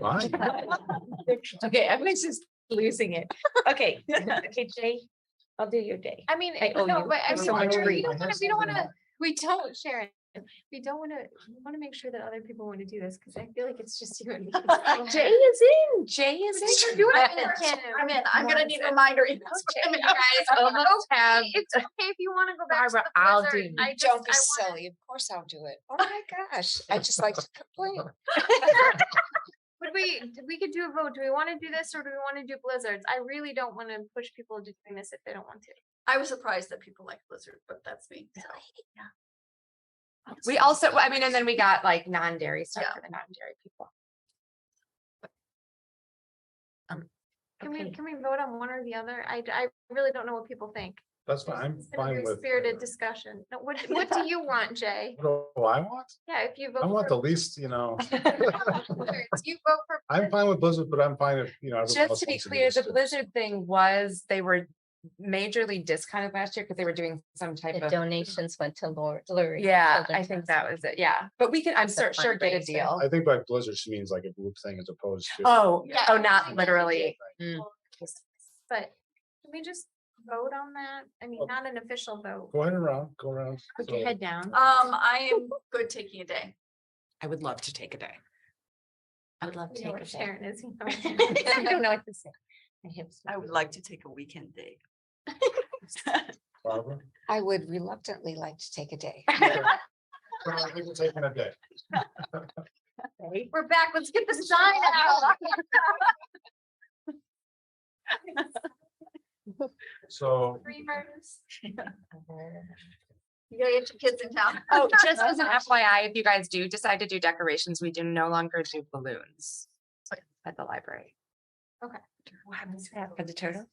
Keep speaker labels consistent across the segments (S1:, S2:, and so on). S1: Why?
S2: Okay, everybody's just losing it. Okay, okay, Jay, I'll do your day.
S3: I mean, eh,
S4: oh,
S2: I owe
S3: no,
S2: you
S3: but I
S2: for
S3: mean,
S2: so
S3: we
S2: much
S3: don't- we
S2: grief.
S3: don't wanna- we don't wanna, we don't, Sharon, we don't wanna, we wanna make sure that other people wanna do this, cause I feel like it's just you and me.
S2: Jay is in, Jay is
S3: Thanks for
S2: in.
S3: doing
S2: I-
S3: it for us.
S4: I'm in. I'm gonna need a reminder. emails from
S3: Okay,
S4: him.
S3: you guys,
S2: almost
S3: it's okay-
S2: have-
S3: It's okay if you wanna go back to
S2: Barbara, I'll
S3: the blizzard.
S2: do-
S3: I just, I
S4: Don't be
S3: wanna,
S4: silly. Of course I'll do it. Oh my gosh. I just like to complain.
S3: but we, d- we could do a vote. Do we wanna do this or do we wanna do blizzards? I really don't wanna push people into doing this if they don't want to.
S5: I was surprised that people like Blizzard, but that's me. so.
S2: We also, I mean, and then we got like non-dairy stuff
S5: Yeah.
S2: for the non-dairy people.
S3: Can
S2: Um, Okay.
S3: we, can we vote on one or the other? I, d- I really don't know what people think.
S1: That's fine. I'm
S3: It's gonna be
S1: fine
S3: a
S1: with.
S3: Spirited discussion. No, what, what do you want, Jay?
S1: What do I want?
S3: Yeah, if you vote.
S1: I want
S3: for
S1: the least, you know,
S3: blizzards, You vote for.
S1: I'm fine with Blizzard, but I'm fine if, you know. everyone
S2: Just
S1: else
S2: to be
S1: wants do
S2: clear,
S1: this
S2: the
S1: too.
S2: Blizzard thing was, they were majorly discounted last year because they were doing some type
S6: The
S2: of,
S6: donations went to Lori. Lurie
S2: yeah, I
S6: Children's
S2: think
S6: Hospital.
S2: that was it, yeah. But we can, I'm
S6: It's a
S2: cer- sure get a
S6: fundraiser.
S2: deal.
S1: I think by Blizzard, she means like a group thing as opposed to.
S2: Oh,
S3: Yeah,
S2: oh,
S3: I
S2: not
S3: think that would be
S2: literally.
S3: But can we just vote on that? I mean,
S1: Oh.
S3: not an official vote.
S1: Go ahead around, go around.
S3: Put your
S1: So,
S3: head down.
S5: Um, I am good taking a day.
S4: I would love to take a day.
S6: I would love to
S3: You know
S6: take
S3: where
S6: a day.
S3: Sharon is. you know.
S6: I don't know what to say. My hips
S5: I
S6: are-
S5: would like to take a weekend day.
S1: Barbara.
S4: I would reluctantly like to take a day.
S1: Okay. Barbara, we're Taking a day.
S3: We're back. Let's get the sign out.
S1: So
S3: Three murders.
S5: You gotta get your kids in town.
S2: Oh, just as an FYI, if you guys do decide to do decorations, we do no longer do balloons at the library.
S3: What happens
S6: For the turtle?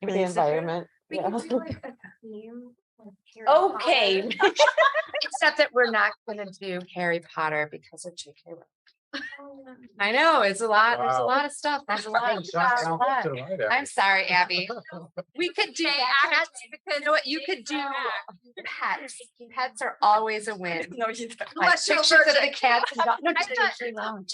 S3: The environment. We can do like a theme. with Harry Potter.
S2: Okay. Except that we're not gonna do Harry Potter because of JK. Rowling.
S3: Um,
S2: I know, it's a lot, there's a
S1: Wow.
S2: lot of stuff, there's a lot.
S1: Shot
S2: of stuff.
S1: down left and right
S2: I'm
S1: after.
S2: sorry, Abby. We could
S3: Jay,
S2: do that.
S3: actually,
S2: You know what, you
S3: Jay
S2: could do
S3: back.
S2: pets. Pets are always a win.
S5: No, you don't.
S2: Like
S5: Unless you're
S2: Pictures of the
S5: allergic.
S2: cats and dogs. No,
S3: I
S2: just
S3: thought-
S2: pictures.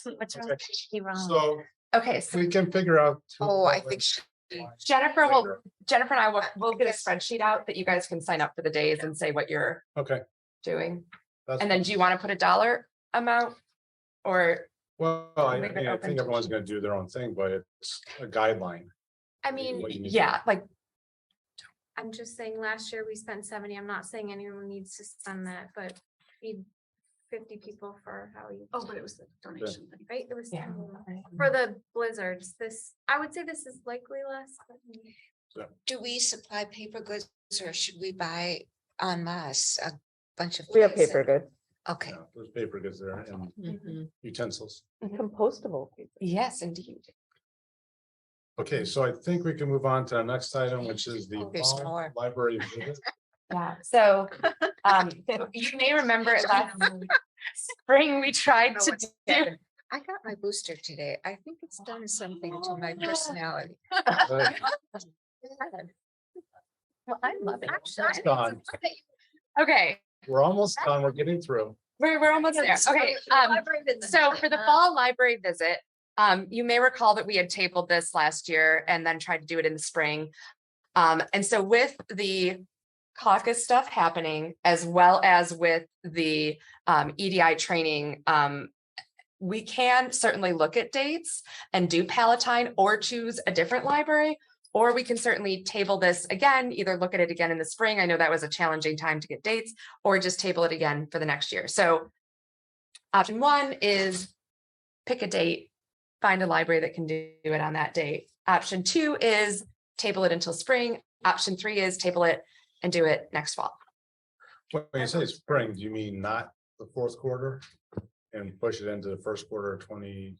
S2: Just pictures.
S6: What's wrong
S1: Okay.
S6: with J.K. Rowling?
S1: So
S2: Okay, so
S1: we can figure out. who-
S4: Oh, I
S1: what
S4: think she-
S1: we-
S2: Jennifer will
S1: later.
S2: Jennifer and I will, we'll get a spreadsheet out that you guys can sign up for the days and say what you're
S1: Okay.
S2: doing.
S1: that's
S2: And then
S1: fine.
S2: do you want to put a dollar amount? Or,
S1: Well, I
S2: leave it
S1: mean, I
S2: open
S1: think
S2: to
S1: everyone's gonna do their own thing, but it's a guideline.
S3: I
S1: what you-
S3: mean,
S1: what you need to do.
S2: yeah, like,
S3: I'm just saying last year we spent seventy. I'm not saying anyone needs to spend that, but need fifty people for how you.
S5: Oh, but it was the donation thing.
S3: Right? It was.
S2: yeah.
S3: um, For the blizzards, this, I would say this is likely less. but-
S4: do we supply paper goods or should we buy en masse a bunch of? things and-
S7: goods.
S4: Okay,
S1: Yeah, There's paper goods there and
S2: Mm-hmm.
S6: Mhm.
S1: utensils.
S7: Compostable.
S2: Yes, indeed.
S1: Okay, so I think we can move on to our next item, which is the
S4: There's
S1: fall
S4: more.
S1: library. visit.
S2: Yeah, so, um, you may remember it last spring, we tried to do.
S4: I got my booster today. I think it's done something to
S6: Oh,
S4: my personality.
S1: Uh,
S6: Well, I love it.
S3: Actually, I
S1: It's
S3: think
S1: gone.
S3: it's okay.
S2: Okay,
S1: We're almost done. We're getting through.
S2: we're, we're almost there. Okay, um, So for the fall library visit, um, you may recall that we had tabled this last year and then tried to do it in the spring. Um, and so with the caucus stuff happening, as well as with the um, EDI training, um, we can certainly look at dates and do Palatine or choose a different library. Or we can certainly table this again, either look at it again in the spring. I know that was a challenging time to get dates, or just table it again for the next year. So Option one is pick a date, find a library that can do it on that date. Option two is table it until spring. Option three is table it and do it next fall.
S1: When you say spring, do you mean not the fourth quarter? And push it into the first quarter of twenty?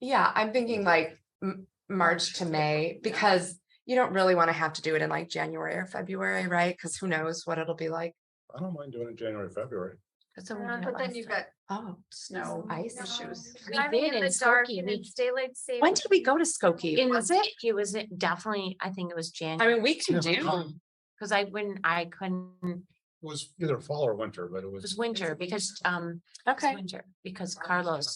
S2: Yeah, I'm thinking like M- March to May because you don't really want to have to do it in like January or February, right? Because who knows what it'll be like.
S1: I don't mind doing it January, February.
S5: Uh, But then you've got
S2: Oh,
S5: snow
S2: Ice
S5: issues.
S6: We
S3: Driving
S6: did
S3: in
S6: in
S3: the dark
S6: Skokie,
S3: and
S6: we-
S3: it's daylight saving.
S2: when did we go to Skokie?
S6: In,
S2: Was it?
S6: it was definitely, I think it was
S2: I
S6: January,
S2: mean, we can
S1: Yeah.
S2: do.
S6: because I wouldn't, I couldn't,
S1: It was either fall or winter, but it
S6: it was
S1: was.
S6: winter because, um, it was
S2: Okay.
S6: winter because Carlos